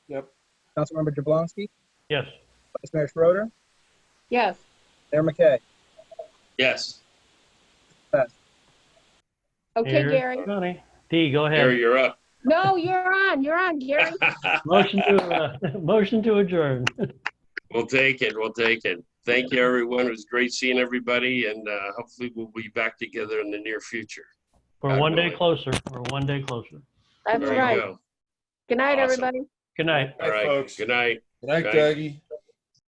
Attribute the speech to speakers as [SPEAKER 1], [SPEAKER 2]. [SPEAKER 1] Yep.
[SPEAKER 2] Councilmember Jablonski,
[SPEAKER 3] Yes.
[SPEAKER 2] Vice Mayor Schroeder,
[SPEAKER 4] yes,
[SPEAKER 2] Mayor McKay.
[SPEAKER 5] Yes.
[SPEAKER 4] okay,
[SPEAKER 3] Here.
[SPEAKER 4] Gary.
[SPEAKER 3] Johnny. Dee, go
[SPEAKER 5] Gary,
[SPEAKER 3] ahead.
[SPEAKER 5] you're up.
[SPEAKER 4] No, you're on, you're on, Gary.
[SPEAKER 3] Motion to, uh, motion to adjourn.
[SPEAKER 5] We'll take it. We'll take it. Thank you, everyone. It was great seeing everybody, and uh, hopefully we'll be back together in the near future.
[SPEAKER 3] We're
[SPEAKER 5] God
[SPEAKER 3] one day
[SPEAKER 5] willing.
[SPEAKER 3] closer. We're one day closer.
[SPEAKER 4] That's
[SPEAKER 5] There you
[SPEAKER 4] right.
[SPEAKER 5] go.
[SPEAKER 4] Good night,
[SPEAKER 5] Awesome.
[SPEAKER 4] everybody.
[SPEAKER 3] Good night.
[SPEAKER 5] All
[SPEAKER 1] Bye,
[SPEAKER 5] right.
[SPEAKER 1] folks.
[SPEAKER 5] Good night.
[SPEAKER 1] Good night,
[SPEAKER 5] Good night.
[SPEAKER 1] Dougie.